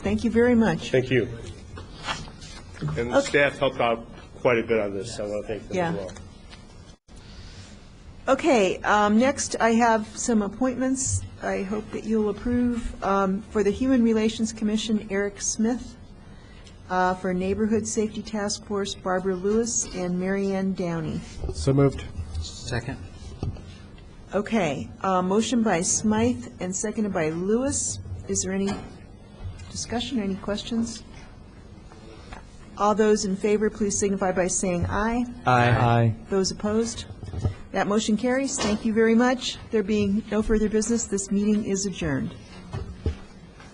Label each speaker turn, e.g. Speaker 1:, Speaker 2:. Speaker 1: Thank you very much.
Speaker 2: Thank you. And the
Speaker 1: Okay.
Speaker 2: staff helped out quite a bit on this, so I want to thank them as
Speaker 1: Yeah.
Speaker 2: well.
Speaker 1: Okay, um, next, I have some appointments I hope that you'll approve. Um, For the Human Relations Commission, Eric Smith. Uh, For Neighborhood Safety Task Force, Barbara Lewis and Mary Ann Downey.
Speaker 3: So moved.
Speaker 4: Second?
Speaker 1: Okay, uh, motion by Smythe and seconded by Lewis. Is there any discussion, or any questions? All those in favor, please signify by saying aye.
Speaker 3: Aye.
Speaker 1: Those opposed? That motion carries. Thank you very much. There being no further business, this meeting is adjourned.